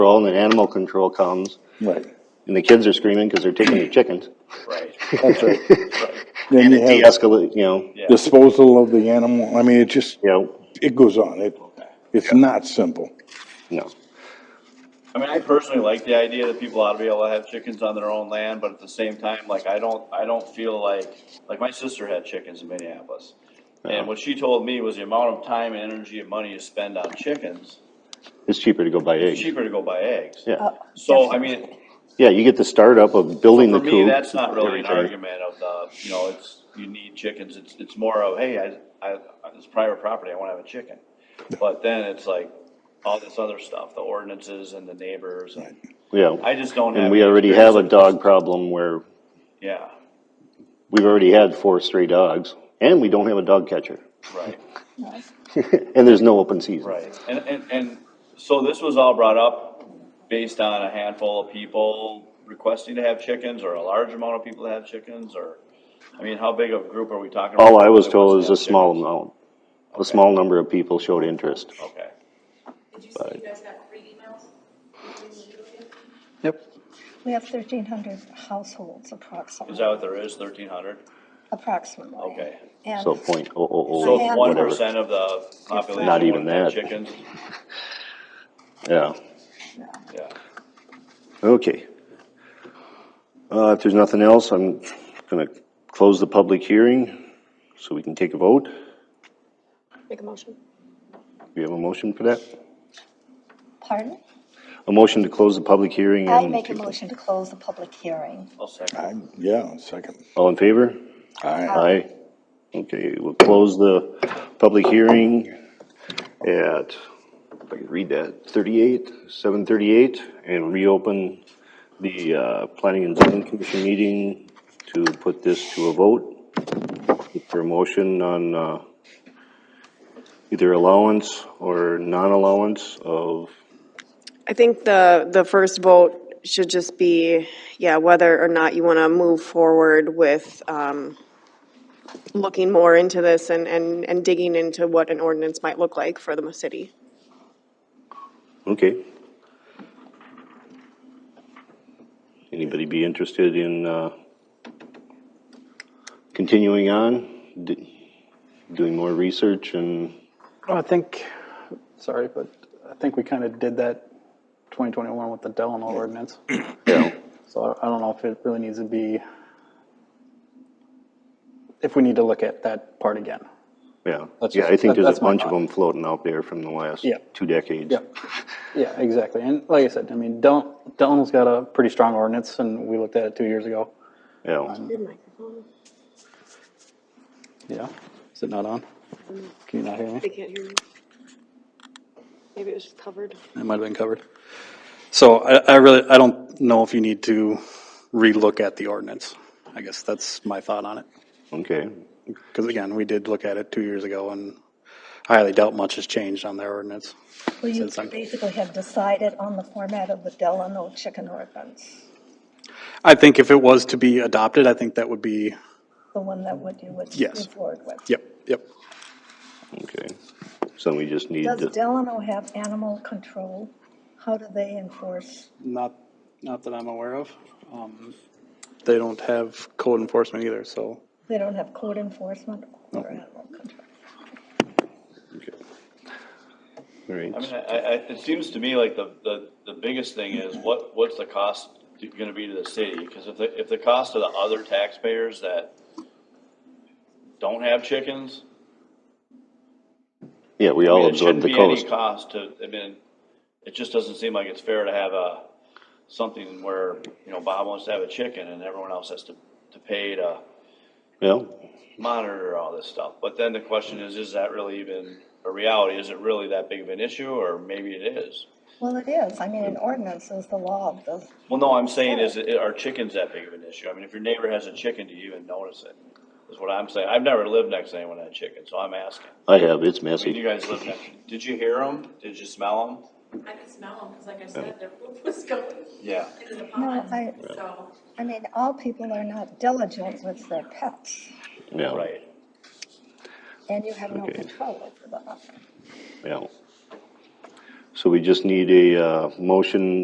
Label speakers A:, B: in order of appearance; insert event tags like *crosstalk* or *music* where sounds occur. A: control and then animal control comes
B: Right,
A: and the kids are screaming because they're taking their chickens. *laughs*
C: Right.
B: that's right.
A: And
B: Then
A: it
B: you have
A: de-escalate, you know,
C: Yeah.
B: disposal of the animal, I mean, it just,
A: you know,
B: it goes on, it, it's not simple.
A: no.
C: I mean, I personally like the idea that people ought to be able to have chickens on their own land, but at the same time, like, I don't, I don't feel like, like, my sister had chickens in Minneapolis. And what she told me was the amount of time and energy and money you spend on chickens,
A: It's cheaper to go buy
C: it's
A: eggs.
C: cheaper to go buy eggs.
A: Yeah,
C: So, I mean,
A: yeah, you get the startup of building the
C: for
A: coop.
C: me, that's not really an
A: everything.
C: argument of the, you know, it's, you need chickens, it's, it's more of, hey, I, I, it's private property, I wanna have a chicken. But then it's like, all this other stuff, the ordinances and the neighbors, and
A: Yeah,
C: I just don't have.
A: and we
C: any
A: already have a dog
C: experience.
A: problem where
C: Yeah,
A: we've already had four stray dogs and we don't have a dog catcher. *laughs*
C: right,
A: And there's no open season.
C: right. And, and, and so this was all brought up based on a handful of people requesting to have chickens or a large amount of people to have chickens or, I mean, how big of a group are we talking? about
A: All I was
C: that
A: told
C: wants
A: is
C: to
A: a
C: have
A: small
C: chickens?
A: amount, a small number of people showed interest.
C: Okay,
D: Did you say you guys got three emails?
E: Yep.
F: We have thirteen hundred households
C: is that
F: approximately,
C: what there is, thirteen hundred?
F: approximately.
C: Okay.
F: And
A: So point oh oh
C: So
A: oh,
F: have-
C: one
A: whatever.
C: percent of the population
A: Not even
C: would have
A: that.
C: chickens?
A: Yeah,
C: Yeah,
A: okay. Uh, if there's nothing else, I'm gonna close the public hearing so we can take a vote.
D: Make a motion.
A: We have a motion for that?
F: Pardon?
A: A motion to close the public hearing and.
F: I make a motion to close the public hearing.
C: I'll second.
B: I, yeah, second,
A: All in favor?
B: I,
A: Aye. Okay, we'll close the public hearing at, if I can read that, thirty-eight, seven thirty-eight, and reopen the, uh, planning and zoning commission meeting to put this to a vote. Look For a motion on, uh, either allowance or non-allowance of,
G: I think the, the first vote should just be, yeah, whether or not you want to move forward with um, looking more into this and, and and digging into what an ordinance might look like for the city.
A: okay. Anybody be interested in, uh, continuing on? D- doing more research and,
E: Well, I think, sorry, but I think we kind of did that 2021 with the Delano ordinance.
A: yeah,
E: So I- I don't know if it really needs to be, if we need to look at that part again.
A: yeah.
E: That's
A: Yeah, I
E: just-
A: think there's a
E: that's my
A: bunch of
E: thought.
A: them floating out there from the last
E: Yeah.
A: two decades.
E: Yeah, yeah, exactly. And like I said, I mean, Del- Delano's got a pretty strong ordinance and we looked at it two years ago.
A: Yeah,
E: Yeah, is it not on? Can you not hear me?
G: They can't hear me. Maybe it was just covered.
E: It might have been covered. So I, I really, I don't know if you need to relook at the ordinance. I guess that's my thought on it.
A: okay.
E: Because again, we did look at it two years ago and I highly doubt much has changed on their ordinance.
F: Well, you
E: Since I'm-
F: basically have decided on the format of the Delano chicken ordinance,
E: I think if it was to be adopted, I think that would be,
F: the one that would you would
E: Yes.
F: move forward with.
E: yep, yep.
A: Okay. So we just need
F: Does
A: to,
F: Delano have animal control? How do they enforce?
E: Not, not that I'm aware of. Um, They don't have code enforcement either, so.
F: They don't have code enforcement or animal control.
A: okay. All right,
C: I mean, I, I, it seems to me like the, the, the biggest thing is what, what's the cost to- gonna be to the city? Cause if the, if the cost of the other taxpayers that don't have chickens,
A: yeah, we
C: I mean,
A: all
C: it shouldn't
A: absorb the
C: be any
A: cost.
C: cost to, I mean, it just doesn't seem like it's fair to have a, something where, you know, Bob wants to have a chicken and everyone else has to, to pay to
A: Yeah,
C: monitor all this stuff. But then the question is, is that really even a reality? Is it really that big of an issue or maybe it is?
F: Well, it is. I mean, an ordinance is the law of the
C: Well, no, I'm saying is, it- are chickens that big of an issue? I mean, if your neighbor has a chicken, do you even notice it? Is what I'm saying. I've never lived next to anyone that had chicken, so I'm asking.
A: I have, it's
C: I mean,
A: messy.
C: you guys live next, did you hear them? Did you smell them?
D: I could smell them, because like I said, their poop was *laughs* going
C: Yeah.
D: into the
F: No,
D: pond,
F: I-
D: so.
F: I mean, all people are not diligent with their pets,
A: Yeah.
C: Right.
F: and you have no
A: Okay.
F: control over that.
A: Yeah. So we just need a uh, motion